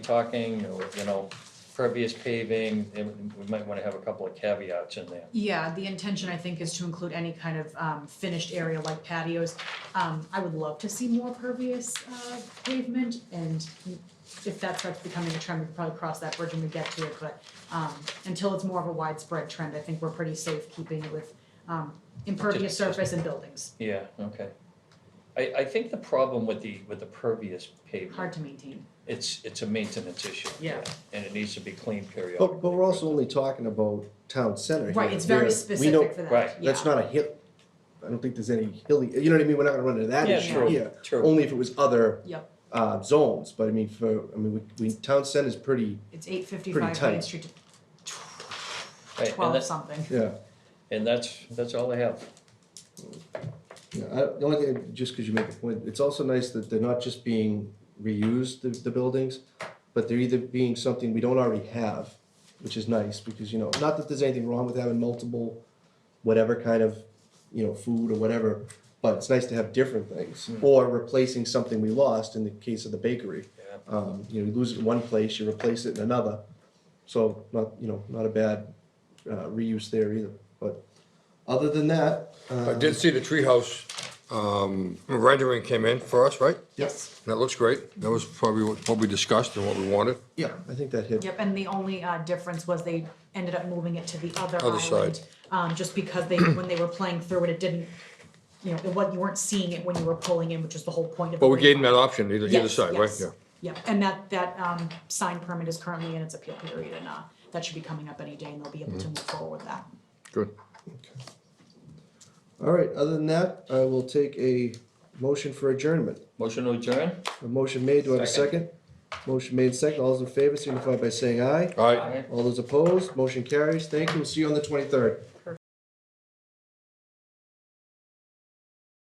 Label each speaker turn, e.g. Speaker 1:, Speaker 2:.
Speaker 1: talking, or, you know, pervious paving, and we might wanna have a couple of caveats in there.
Speaker 2: Yeah, the intention I think is to include any kind of um finished area like patios. Um I would love to see more pervious uh pavement and if that starts becoming a trend, we could probably cross that bridge when we get to it, but um until it's more of a widespread trend, I think we're pretty safe keeping it with um impervious
Speaker 1: Just- just-
Speaker 2: surface and buildings,
Speaker 1: Yeah, okay. I, I think the problem with the, with the pervious
Speaker 2: hard
Speaker 1: pavement,
Speaker 2: to maintain.
Speaker 1: it's, it's a maintenance issue.
Speaker 2: Yeah.
Speaker 1: And it needs to be cleaned periodically.
Speaker 3: But, but we're also only talking about town center here.
Speaker 2: Right, it's very
Speaker 3: where we don't-
Speaker 2: specific for that, yeah.
Speaker 1: right,
Speaker 3: That's not a hill, I don't think there's any hilly, you know what I mean, we're not gonna run into that
Speaker 1: Yeah,
Speaker 3: issue
Speaker 1: true,
Speaker 3: here.
Speaker 1: true.
Speaker 3: Only if it was other,
Speaker 2: Yep,
Speaker 3: uh, zones, but I mean, for, I mean, we, we, town center's pretty,
Speaker 2: it's eight fifty
Speaker 3: Pretty
Speaker 2: five
Speaker 3: tight.
Speaker 2: Main Street
Speaker 1: Right,
Speaker 2: to
Speaker 1: and
Speaker 2: twelve
Speaker 1: that-
Speaker 2: something.
Speaker 3: yeah.
Speaker 1: And that's, that's all I have.
Speaker 3: Yeah, I, the only thing, just because you make a point, it's also nice that they're not just being reused, the, the buildings, but they're either being something we don't already have, which is nice, because, you know, not that there's anything wrong with having multiple, whatever kind of, you know, food or whatever, but it's nice to have different things, or replacing something we lost in the case of the bakery.
Speaker 1: Yeah.
Speaker 3: Um, you know, you lose it in one place, you replace it in another, so not, you know, not a bad, uh, reuse there either, but other than that,
Speaker 4: I did see the treehouse um, rendering came in for us, right?
Speaker 3: yes.
Speaker 4: That looks great. That was probably what what we discussed and what we wanted.
Speaker 3: Yeah, I think that hit.
Speaker 2: Yep, and the only uh difference was they ended up moving it to the other
Speaker 4: Other
Speaker 2: island.
Speaker 4: side.
Speaker 2: Um, just because they, when they were playing through it, it didn't, you know, it wa- you weren't seeing it when you were pulling in, which is the whole point of.
Speaker 4: But
Speaker 2: the
Speaker 4: we gave them that
Speaker 2: wayfinder.
Speaker 4: option, either, either
Speaker 2: Yes,
Speaker 4: side, right?
Speaker 2: yes.
Speaker 4: Yeah.
Speaker 2: Yeah, and that that um sign permit is currently in its appeal period and uh that should be coming up any day and they'll be
Speaker 4: Mm-hmm.
Speaker 2: able to move forward with that.
Speaker 4: Good.
Speaker 3: All right, other than that, I will take a motion for adjournment.
Speaker 1: Motion to adjourn?
Speaker 3: A motion made, do I have a second? Motion made second, all those in favor signify by saying aye.
Speaker 4: All right.
Speaker 1: All right.
Speaker 3: All those opposed, motion carries. Thank you, we'll see you on the twenty-third.